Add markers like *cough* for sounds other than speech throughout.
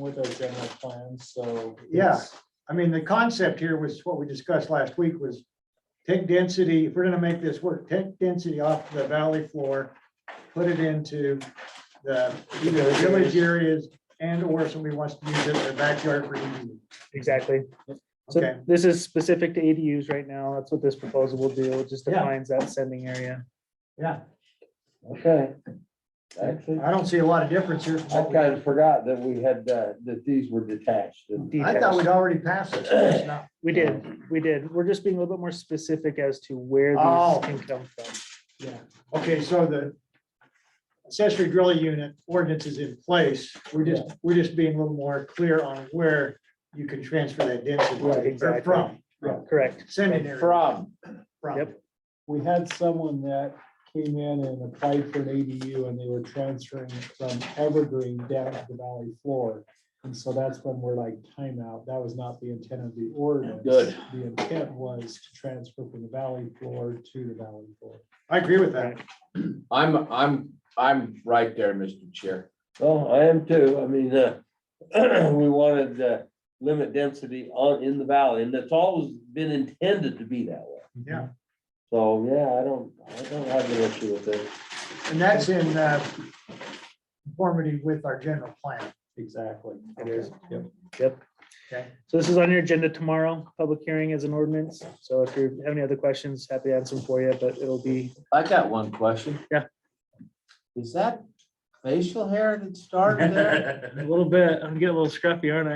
with our general plan, so. Yeah. it's- I mean, the concept here was what we discussed last week was take density, if we're gonna make this work, take density off the valley floor, put it into the either village areas and or somebody wants to use it in their backyard for ADU. Exactly. Okay. So this is specific to ADUs right now. That's what this proposal will do. It just Yeah. defines that sending area. Yeah, Okay. Actually, I don't see a lot of difference here. from I what we- kind of forgot that we had, uh, that these were detached. and- I thought we'd already passed it. so it's not- We did, we did. We're just being a little bit more specific as to where Oh. these can come from. Yeah, okay, so the accessory drilling unit ordinance is in place. We're just, we're just being a little more clear on where you can transfer that density Right, or exactly. from, Correct. send it there. From, from. Yep. We had someone that came in and applied for an ADU and they were transferring it from Evergreen down to the valley floor. And so that's when we're like timeout. That was not the intent of the ordinance. Good. The intent was to transfer from the valley floor to the valley floor. I agree with that. I'm, I'm, I'm right there, Mr. Chair. well, I am too. I mean, uh, *clears throat* we wanted to limit density on, in the valley, and that's always been intended to be that way. Yeah, So, yeah, I don't, I don't have an issue with it. and that's in uh, conformity with our general plan. Exactly. It is. Yep. Yep. Okay. So this is on your agenda tomorrow, public hearing is an ordinance. So if you have any other questions, happy to answer them for you, but it'll be, I got one question. Yeah. Is that facial hair that *laughs* started *laughs* there? a little bit, I'm getting a little scruffy, aren't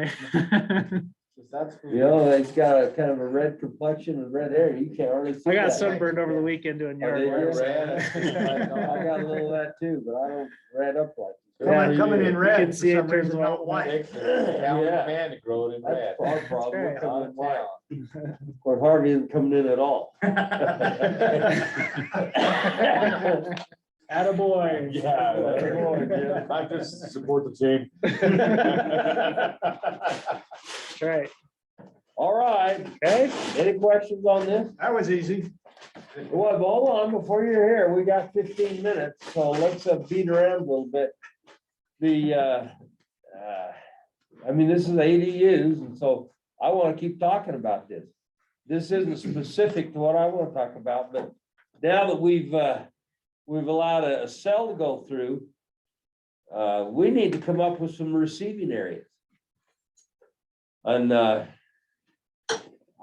*laughs* I? 'Cause that's- You know, it's got a kind of a red complexion and red hair. You can't hardly see. I got that. sunburned over the weekend doing Are they yard work. red? I got a little of that too, but I don't red up like. Yeah, Coming you coming do. in You red can for see it some turns reason, white. not white. California Yeah. man to grow it in red. *laughs* That's our problem. right. not mine. Of course, Harvey isn't coming in at *laughs* all. Attaboy. *laughs* Attaboy. Attaboy, I just support the *laughs* team. All right, All right, okay, any questions on this? That was easy. Well, hold on, before you're here, we got fifteen minutes, so let's uh, beat around a little bit. The, uh, uh, I mean, this is ADUs, and so I want to keep talking about this. This isn't specific to what I want to talk about, but now that we've, uh, we've allowed a a cell to go through, uh, we need to come up with some receiving areas. And, uh,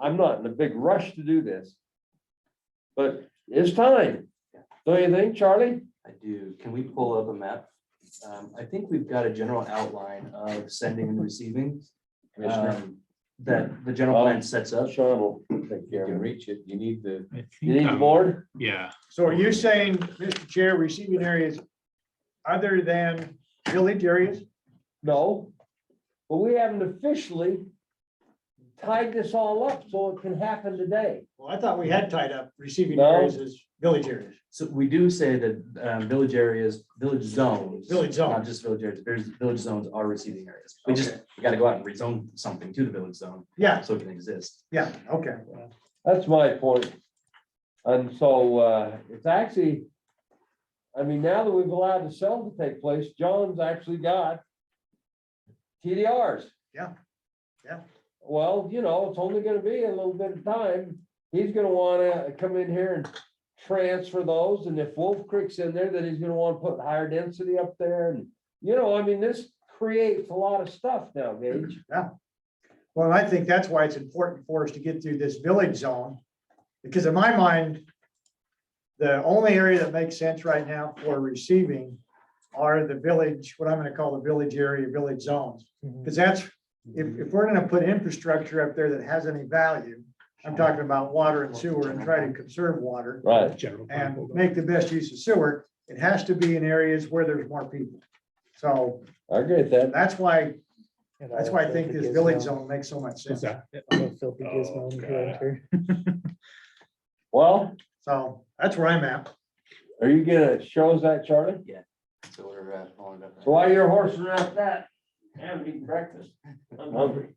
I'm not in a big rush to do this, but it's time. Don't you think, Charlie? I do. Can we pull up a map? Um, I think we've got a general outline of sending and receiving. Commissioner, um, That the general plan sets up. Sean will take you care can of it. reach it. You need the, You need the board? Yeah, So are you saying, Mr. Chair, receiving areas other than village areas? No. But we haven't officially tied this all up so it can happen today. Well, I thought we had tied up receiving No. areas as village areas, So we do say that um, village areas, village zones. Village zone. Not just village areas, there's village zones are receiving areas. We just, we gotta go out and rezone something to the village zone Yeah, so it can exist. yeah, okay. That's my point. And so uh, it's actually, I mean, now that we've allowed the sale to take place, John's actually got TDRs. Yeah. Yeah. Well, you know, it's only gonna be a little bit of time. He's gonna wanna come in here and transfer those, and if Wolf Creek's in there, then he's gonna wanna put higher density up there, and, you know, I mean, this creates a lot of stuff now, Gage. Well, I think that's why it's important for us to get through this village zone, because in my mind, the only area that makes sense right now for receiving are the village, what I'm gonna call the village area, village zones. Because that's, if, if we're gonna put infrastructure up there that has any value, I'm talking about water and sewer and try to conserve water Right. general. plan. and make the best use of sewer, it has to be in areas where there's more people. So I agree with that. that's why, that's why I think this village zone makes so much What's sense. that? I'm a filthy gizmo Oh, and God. grunter. Well, So that's where I'm at. are you gonna show us that, Charlie? So we're uh, following up. So While you're horsing around that, have eaten breakfast. I'm hungry.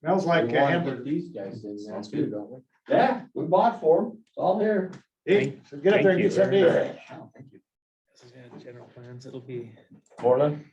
Smells we like a want to put hamburger. these guys in there Sounds too, good. don't we? Yeah, we bought for them. It's all here. Hey, so get up there and get something. to eat. Oh, thank you. This is gonna general plans, it'll be Morning.